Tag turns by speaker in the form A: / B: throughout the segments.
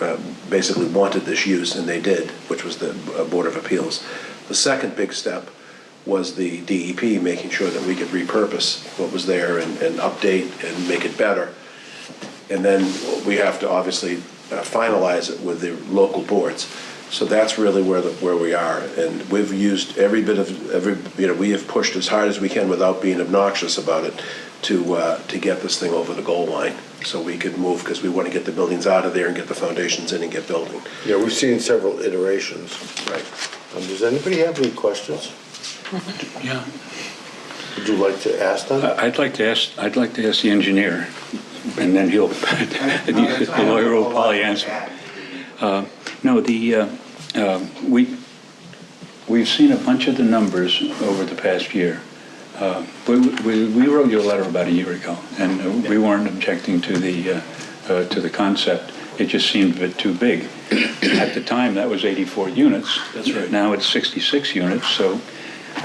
A: um, basically wanted this use, and they did, which was the uh, Board of Appeals. The second big step was the DEP making sure that we could repurpose what was there and, and update and make it better. And then we have to obviously uh, finalize it with the local boards. So that's really where, the where we are. And we've used every bit of, every, you know, we have pushed as hard as we can without being obnoxious about it to, uh, to get this thing over the goal line so we could move, because we want to get the buildings out of there and get the foundations in and get building.
B: Yeah, we've seen several iterations.
A: Right.
B: Um, Does anybody have any questions?
C: Yeah,
B: Would you like to ask them?
C: I- I'd like to ask, I'd like to ask the engineer, and then he'll, the lawyer will probably answer. Uh, No, the, uh, uh, we, we've seen a bunch of the numbers over the past year. Uh, We we we wrote you a letter about a year ago, and uh, we weren't objecting to the, uh, uh, to the concept. It just seemed a bit too big. At the time, that was 84 units. That's right. Now it's 66 units, so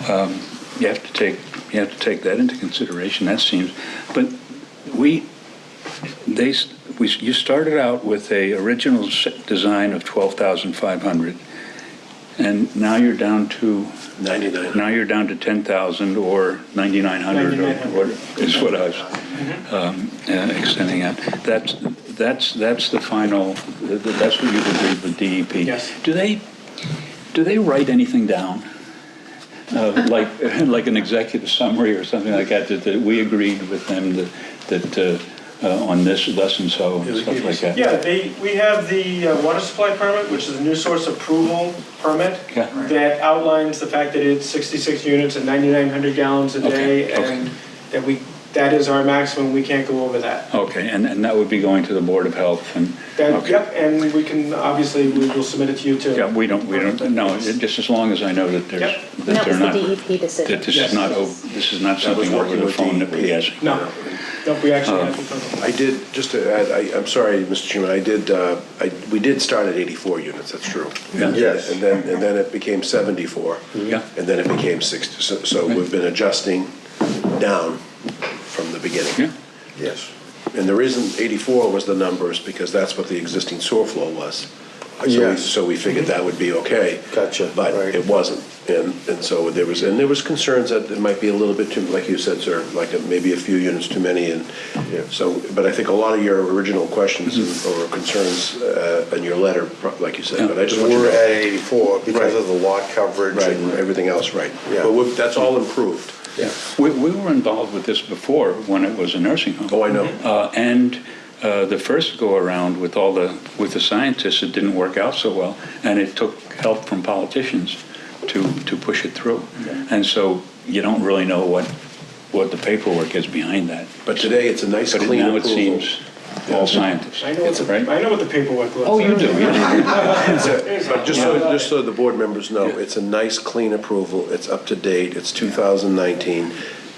C: um, you have to take, you have to take that into consideration, that seems, but we, they, s- we, s- you started out with a original s- design of 12,500, and now you're down to,
A: 99.
C: now you're down to 10,000 or 9,900 or what, is what I was
D: Mm-hmm.
C: um, uh, extending out. That's, that's, that's the final, th- th- that's what you've agreed with DEP.
D: Yes.
C: Do they, do they write anything down? Uh, Like, like an executive summary or something like that, that, that we agreed with them that, that uh, uh, on this, less and so, and stuff like that?
D: Yeah, they, we have the uh, water supply permit, which is a new source approval permit
C: Yeah.
D: that outlines the fact that it's 66 units and 9,900 gallons a
C: Okay,
D: day,
C: okay.
D: and that we, that is our maximum, we can't go over that.
C: Okay, and, and that would be going to the Board of Health and?
D: That,
C: okay.
D: yep, and we can, obviously, we will submit it to you too.
C: Yeah, we don't, we don't, no, it- just as long as I know that there's,
D: Yep.
C: that
E: That
C: they're
E: was the
C: not,
E: DEP
C: that
E: decision.
C: this is not, ov- this is not something over the phone that
A: E
C: we ask.
D: No, no, we
C: Oh.
D: actually have to come.
A: I did, just to add, I, I'm sorry, Mr. Chairman, I did, uh, I, we did start at 84 units, that's true.
C: Yeah.
B: Yes.
A: And then, and then it became 74.
B: Mm-hmm.
C: Yeah.
A: And then it became 60, so, so we've been adjusting down from the beginning.
C: Yeah,
B: Yes.
A: And the reason 84 was the numbers, because that's what the existing sewer flow was. So we-
B: Yes.
A: So we figured that would be okay.
B: Gotcha,
A: But
B: right.
A: it wasn't. And, and so there was, and there was concerns that it might be a little bit too, like you said, sir, like a- maybe a few units too many. And
B: Yeah. Mm-hmm.
A: so, but I think a lot of your original questions or concerns uh, in your letter, pro- like you said, but I just want you to
B: We're
A: know.
B: at 84 because
A: Right.
B: of the lot coverage
A: Right, and
B: and
A: everything
B: everything.
A: else, right.
B: Yeah.
A: But we've- that's all improved.
B: Yeah.
C: we, we were involved with this before when it was a nursing home.
A: Oh, I know.
C: Uh, and, uh, the first go-around with all the, with the scientists, it didn't work out so well, and it took help from politicians to, to push it through. And so you don't really know what, what the paperwork is behind that.
A: But today, it's a nice,
C: But
A: clean
C: now
A: approval.
C: it seems all scientists,
D: I know what the,
C: right?
D: I know what the paperwork looks like.
C: Oh, you do, yeah.
A: But just so, just so the board members know, it's a nice, clean approval, it's up to date, it's 2019.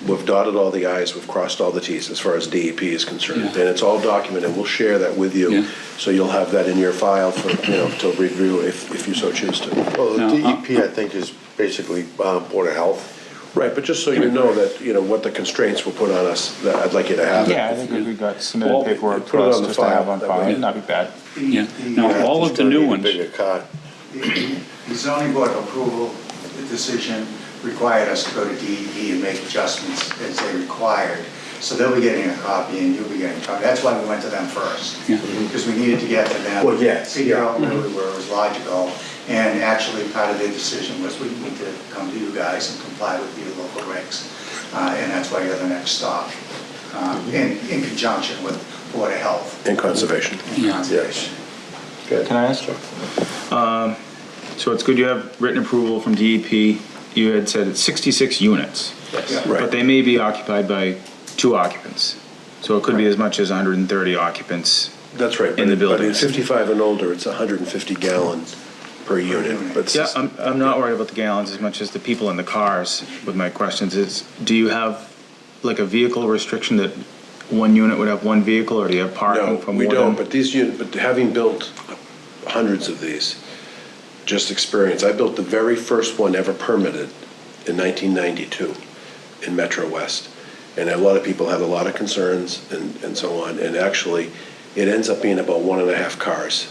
A: We've dotted all the i's, we've crossed all the t's as far as DEP is concerned. And it's all documented, we'll share that with
C: Yeah.
A: you, so you'll have that in your file for, you know, to review if, if you so choose to.
B: Well, the
C: No, uh,
B: DEP, I think, is basically uh, Board of Health.
A: Right, but just so you know that, you know, what the constraints will put on us, that I'd like you to have. it.
F: Yeah, I think if we got
A: Well,
F: submitted paperwork
A: put
F: for
A: it
F: us
A: on the
F: just to have
A: file,
F: on
A: that
F: file,
A: way-
F: it'd not be bad.
C: Yeah, now, all of the
B: Just gonna need
C: new
B: a
C: ones.
B: Bigger car.
G: The the zoning board approval decision required us to go to DEP and make adjustments as they required. So they'll be getting a copy and you'll be getting a copy. That's why we went to them first.
C: Yeah.
G: Because we needed to get to them.
B: Well, yes,
G: Figure
B: yeah.
G: out where we were, it was logical. And actually, part of their decision was we need to come to you guys and comply with your local regs. Uh, And that's why you're the next stop, um, in in conjunction with Board of Health
A: And conservation.
G: and Conservation.
B: Good.
F: Can I ask? Um, So it's good you have written approval from DEP. You had said it's 66 units,
G: Yeah.
A: Right.
F: but they may be occupied by two occupants. So it could be as much as 130 occupants.
A: That's right. but
F: In the
A: it- but in
F: buildings.
A: 55 and older, it's 150 gallon per unit, but.
F: Yeah, I'm, I'm not worried about the gallons as much as the people in the cars with my questions is, do you have like a vehicle restriction that one unit would have one vehicle or do you have
A: No,
F: parking for
A: we
F: more
A: don't,
F: than?
A: but these, uni- but having built hundreds of these, just experience, I built the very first one ever permitted in 1992 in Metro West. And a lot of people had a lot of concerns and, and so on, and actually, it ends up being about one and a half cars